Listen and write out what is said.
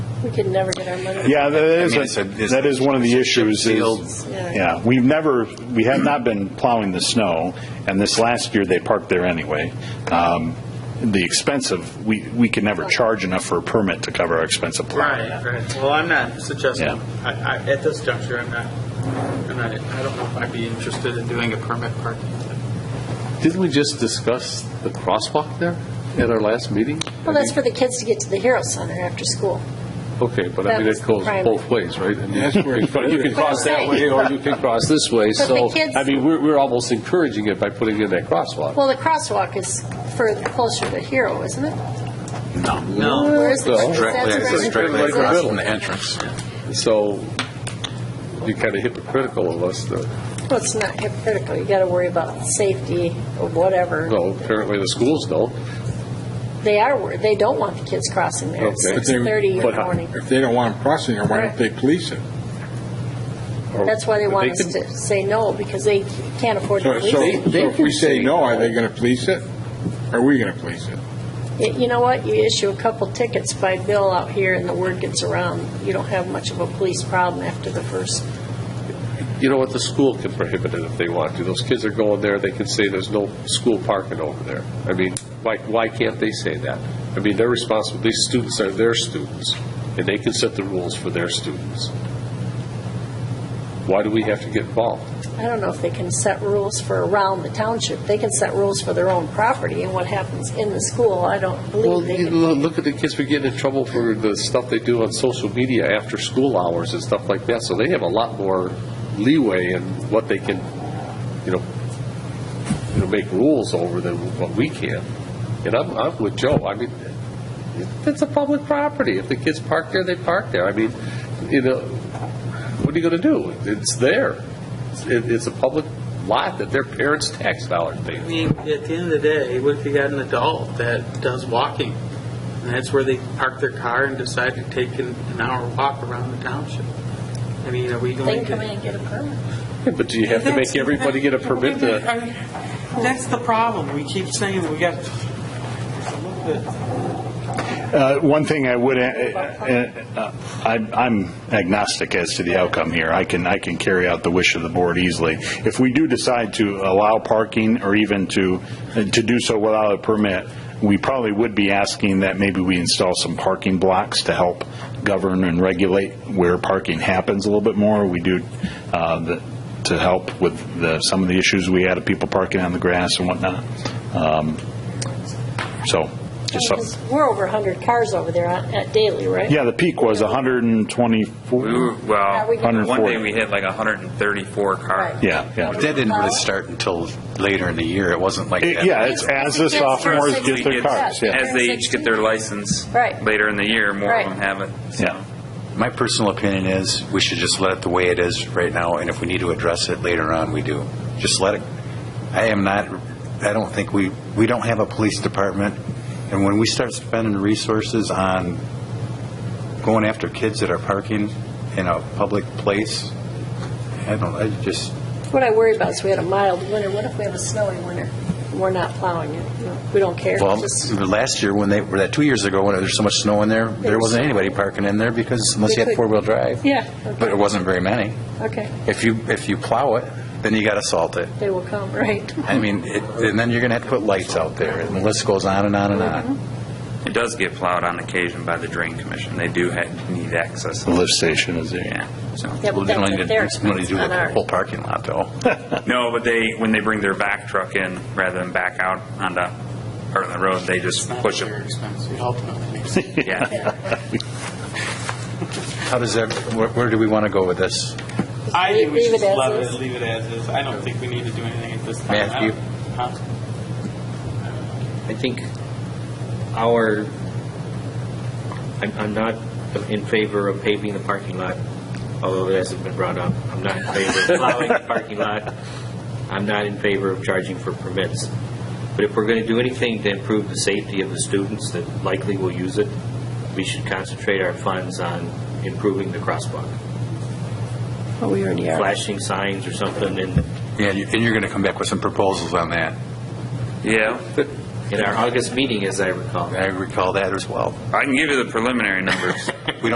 We could never get our money. Yeah, that I is, mean, it's a- a- it's- that is one of the it's a chip issues seal. is, Yeah. yeah, we've never, we have not been plowing the snow, and this last year, they parked there anyway. Um, The expense of, we, we could never charge enough for a permit to cover our expense of plowing. Right, right. Well, I'm not suggesting, Yeah. I, I, at this juncture, I'm not, I'm not, I don't know if I'd be interested in doing a permit parking. Didn't we just discuss the crosswalk there at our last meeting? Well, that's for the kids to get to the Hero Center after school. Okay, but that I mean, was it goes private. both ways, right? I mean, You can That's cross that way, or you can cross this way, But the so, kids- I mean, we're, we're almost encouraging it by putting in that crosswalk. Well, the crosswalk is further, closer to Hero, isn't it? No. Where is the- Well, is that Directly, the it's residential directly zone? across from the entrance. So, you're kind of hypocritical of us, though. Well, it's not hypocritical, you gotta worry about safety or whatever. Well, apparently the schools don't. They are, wor- they don't want the kids crossing there at Okay. But they- 6:30 in the but- morning. If they don't want them crossing there, why don't they police it? or- That's why they but want us can- to say no, because they can't afford to So, so police so it. if we say no, are they going to police it? Are we going to police it? Y- You know what, you issue a couple tickets by bill out here and the word gets around, you don't have much of a police problem after the first. You know what, the school can prohibit it if they want to. Those kids are going there, they can say there's no school parking over there. I mean, why, why can't they say that? I mean, they're responsible, these students are their students, and they can set the rules for their students. Why do we have to get involved? I don't know if they can set rules for around the township, they can set rules for their own property and what happens in the school, I don't Well, believe they you can. lo- look at the kids, we get in trouble for the stuff they do on social media after school hours and stuff like that, so they have a lot more leeway in what they can, you know, you know, make rules over than what we can. And I'm, I'm with Joe, I mean, it- it's a public property, if the kids park there, they park there, I mean, you know, what are you gonna do? It's there, It's- it, it's a public lot that their parents' tax dollars pay. I mean, at the end of the day, what if you got an adult that does walking? And that's where they park their car and decide to take an, an hour walk around the township? I mean, are we They can going to? come in and get a permit. But do you have to make That's- everybody get a that- permit wait a to? minute, I mean, That's the problem. We keep saying we got, Uh, One thing I would, uh, uh, I- I'm agnostic as to the outcome here. I can, I can carry out the wish of the board easily. If we do decide to allow parking or even to, to do so without a permit, we probably would be asking that maybe we install some parking blocks to help govern and regulate where parking happens a little bit more. We do, uh, the- to help with the, some of the issues we had of people parking on the grass and whatnot. Um, So, just something. Because we're over 100 cars over there on- at daily, right? Yeah, the peak was 124. We were, well, we can- one day we hit like 134 cars. Right. Yeah, yeah. That didn't really start until later in the year. It wasn't like It- that. Yeah, it's as the It's- it's sophomores first get their six- cars, yeah. As they each get their license Right. later in the year, more Right. of them have it. so. Yeah. My personal opinion is, we should just let it the way it is right now, and if we need to address it later on, we do. Just let it, I am not, I don't think we, we don't have a police department, and when we start spending resources on going after kids that are parking in a public place, I don't, I just, What I worry about is we had a mild winter, what if we have a snowy winter? We're not plowing it, you know, we don't care. well, mm. Just- last year, when they, or that two years ago, when there was so much snow in there, there wasn't anybody parking in there because, unless you They had could- four-wheel drive. Yeah, But okay, it wasn't very many. okay, If you, if you plow it, then you got to salt it. they will come, right? I mean, it- and then you're going to have to put lights out there, and the list goes on and on and on. It does get plowed on occasion by the drain commission. They do ha need access. The lift station is there. Yeah, so. Yeah, but Well, they that's don't at their even- they don't even expense, do not the ours. whole parking lot, though. No, but they, when they bring their back truck in, rather than back out onto part of the road, they just push Very it. expensive, ultimately. Yeah. How does that, where- where do we want to go with this? I think we Leave it should as just love is. it, leave it as is. I don't think we need to do anything at this time. I Matthew? don't- huh? I think our, I'm, I'm not in favor of paving the parking lot, although it hasn't been brought up. I'm not in favor of plowing the parking lot. I'm not in favor of charging for permits. But if we're going to do anything to improve the safety of the students that likely will use it, we should concentrate our funds on improving the crosswalk, But we already are. flashing signs or something in, Yeah, you- and you're going to come back with some proposals on that. Yeah. in our August meeting, as I recall. I recall that as well. I can give you the preliminary numbers.